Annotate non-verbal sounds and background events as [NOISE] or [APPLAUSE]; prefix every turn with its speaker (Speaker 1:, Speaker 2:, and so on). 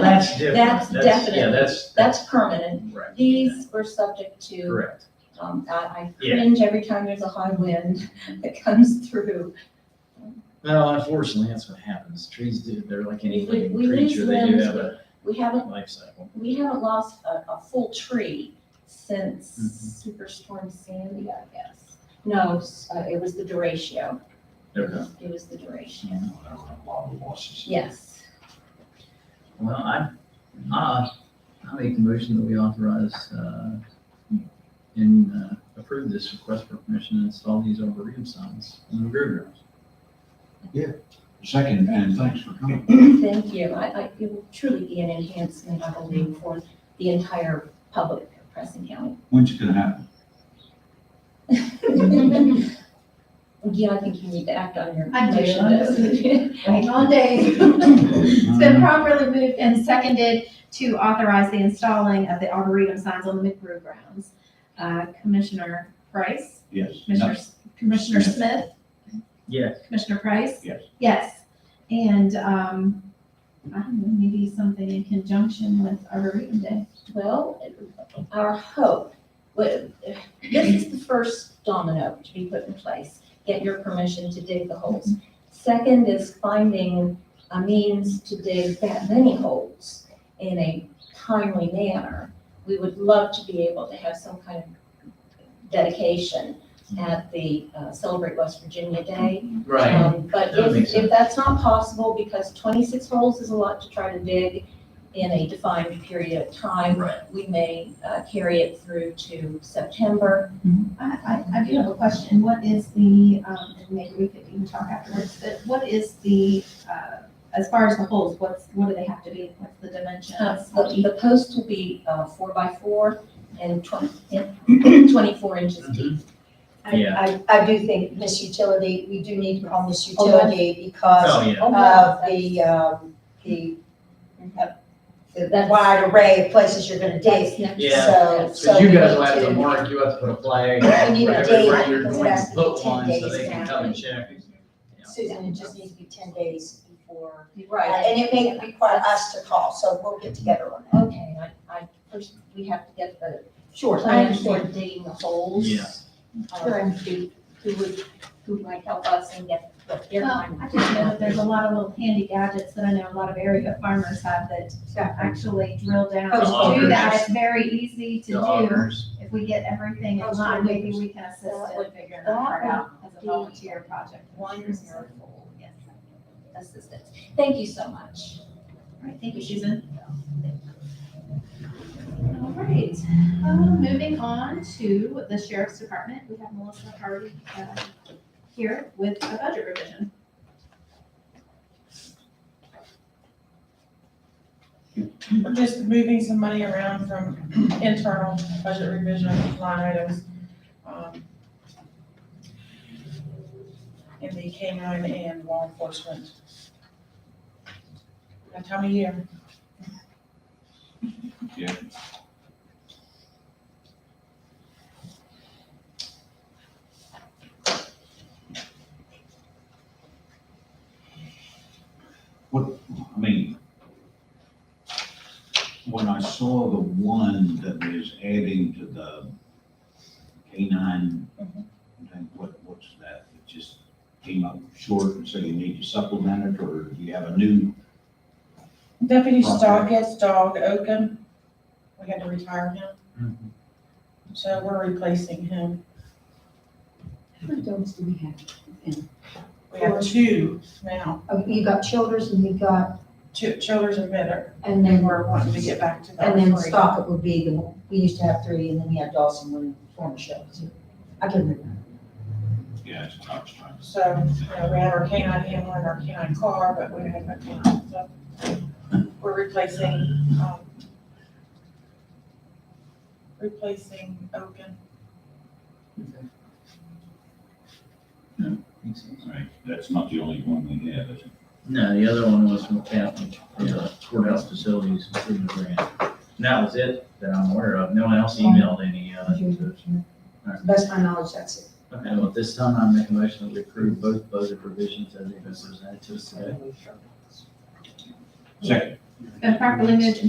Speaker 1: That's different.
Speaker 2: That's
Speaker 1: Yeah,
Speaker 2: definite.
Speaker 1: that's.
Speaker 2: That's permanent.
Speaker 1: Correct.
Speaker 2: These were subject to,
Speaker 1: Correct.
Speaker 2: um, I, I
Speaker 1: Yeah.
Speaker 2: cringe every time there's a high wind [LAUGHS] that comes through.
Speaker 1: Well, unfortunately, that's what happens. Trees do, they're like any
Speaker 2: We-
Speaker 1: living
Speaker 2: we lose
Speaker 1: creature, they do
Speaker 2: limbs,
Speaker 1: have a
Speaker 2: We haven't,
Speaker 1: life cycle.
Speaker 2: we haven't lost a, a full tree
Speaker 1: Mm-hmm.
Speaker 2: since Superstorm Sandy, I guess. No, s- uh, it was the Duratio. It
Speaker 1: Okay.
Speaker 2: was- It was the Duratio.
Speaker 1: Mhm.
Speaker 2: Yes. [CLEARS THROAT]
Speaker 3: Well, I, I, I make the motion that we authorize, uh, and, uh, approve this request for permission to install these arboretum signs in the groove rooms.
Speaker 4: Second, and thanks for coming.
Speaker 2: Thank you. I, I, it will truly be an enhancement, I believe, for the entire public of Preston County. [LAUGHS]
Speaker 4: When's it gonna happen?
Speaker 2: Yeah, I think you need to act on your
Speaker 5: I do.
Speaker 2: motion. though.
Speaker 5: Waiting all day. It's
Speaker 3: Um,
Speaker 5: been properly moved and seconded to authorize the installing of the arboretum signs on the McBrew grounds. Uh, Commissioner Price,
Speaker 4: Yes.
Speaker 5: Commissioner, Commissioner
Speaker 4: Smith.
Speaker 5: Smith,
Speaker 3: Yes,
Speaker 5: Commissioner Price?
Speaker 4: Yes.
Speaker 5: Yes, and, um, I don't know, maybe something in conjunction with arboretum day.
Speaker 2: [LAUGHS] Well, our hope, what- this is the first domino to be put in place. Get your permission to dig the holes. Second is finding a means to dig that many holes in a timely manner. We would love to be able to have some kind of dedication at the uh, Celebrate West Virginia Day.
Speaker 3: right.
Speaker 2: Um, But
Speaker 3: That makes
Speaker 2: if,
Speaker 3: sense.
Speaker 2: if that's not possible, because twenty-six holes is a lot to try to dig in a defined period of time,
Speaker 3: Right.
Speaker 2: we may uh, carry it through to September.
Speaker 5: I, I, I do have a question. What is the, um, and maybe we could even talk afterwards, but what is the, uh, as far as the holes, what's, what do they have to be? What's the dimensions?
Speaker 2: Uh, The the post will be uh, four by four and twenty, [COUGHS] twenty-four
Speaker 3: Mm-hmm.
Speaker 2: inches deep.
Speaker 3: Yeah.
Speaker 6: I, I do think Miss Utility, we do need to call Miss
Speaker 2: Oh, yeah.
Speaker 6: Utility because
Speaker 3: Oh, yeah.
Speaker 2: Oh, wow.
Speaker 6: of the, um, the, uh, the
Speaker 2: That's-
Speaker 6: wide array of places you're gonna
Speaker 2: That's
Speaker 6: dig.
Speaker 2: next.
Speaker 3: Yeah.
Speaker 6: So, so.
Speaker 3: Because you
Speaker 6: we
Speaker 3: guys
Speaker 6: need
Speaker 3: will have to mark, you have to put a flag wherever
Speaker 6: We need a
Speaker 3: where
Speaker 6: date,
Speaker 3: you're
Speaker 6: because it
Speaker 3: going to
Speaker 6: has to be
Speaker 3: put
Speaker 6: 10
Speaker 3: one so
Speaker 6: days
Speaker 3: they can
Speaker 6: now.
Speaker 3: come and check. Yeah.
Speaker 6: Susan, it just needs to be ten days before. uh,
Speaker 2: Right.
Speaker 6: And it may require us to call, so we'll get together on that.
Speaker 2: Okay, I, I, first, we have to get the
Speaker 6: Sure,
Speaker 2: plan for digging the holes.
Speaker 3: Yeah.
Speaker 2: Um, Who who would, who might help us and get what their
Speaker 5: Well,
Speaker 2: time.
Speaker 5: I just know that there's a lot of little handy gadgets that I know a lot of area farmers have that actually drill down
Speaker 6: The
Speaker 5: and do
Speaker 3: loggers.
Speaker 5: that. It's very easy to
Speaker 3: The
Speaker 5: do.
Speaker 3: augers.
Speaker 5: If we get everything in
Speaker 2: Those
Speaker 5: line,
Speaker 2: are
Speaker 5: maybe
Speaker 2: good.
Speaker 5: we can assist
Speaker 2: That
Speaker 5: in
Speaker 2: would-
Speaker 5: figuring
Speaker 2: that
Speaker 5: that part out as
Speaker 2: would
Speaker 5: a
Speaker 2: be
Speaker 5: volunteer project.
Speaker 2: One year old
Speaker 5: Yes.
Speaker 2: assistance. Thank you so much.
Speaker 5: All right, thank you, Susan. All right, um, moving on to the sheriff's department. We have Melissa Harvey, uh, here with a budget revision.
Speaker 7: We're just moving some money around from [CLEARS THROAT] internal budget revision line items. um, In the canine and law enforcement. That time of year.
Speaker 4: Yeah. What, I mean, when I saw the one that was adding to the canine, thing, what, what's that? It just came up short, and so you need to supplement it, or you have a new
Speaker 7: Deputy Stockett's dog, Oakham, we had to retire him,
Speaker 3: Mhm.
Speaker 7: so we're replacing him.
Speaker 8: How many dogs do we have?
Speaker 7: We have two now,
Speaker 8: Oh, you got Childers and you got,
Speaker 7: two, Childers and Bitter,
Speaker 8: and
Speaker 7: and
Speaker 8: then,
Speaker 7: we're wanting to get back to that.
Speaker 8: and then Stockit would be the, we used to have three, and then we had Dawson when former show. I can remember.
Speaker 4: Yeah, that's what I was trying to
Speaker 7: So, you know, we have our canine handler and our canine car, but we have no canine, so we're replacing, um, replacing Oaken.
Speaker 3: Makes sense.
Speaker 4: say. Right, that's not the only one we have, is it?
Speaker 3: No, the other one was from Captain, the uh, courthouse facilities improvement grant. And that was it that I'm aware of. No one else emailed any, uh, to us.
Speaker 8: Best of my knowledge, that's it.
Speaker 3: Okay, well, at this time, I make a motion that we approve both budget provisions as they've been presented to us today.
Speaker 4: Second.
Speaker 5: Been properly moved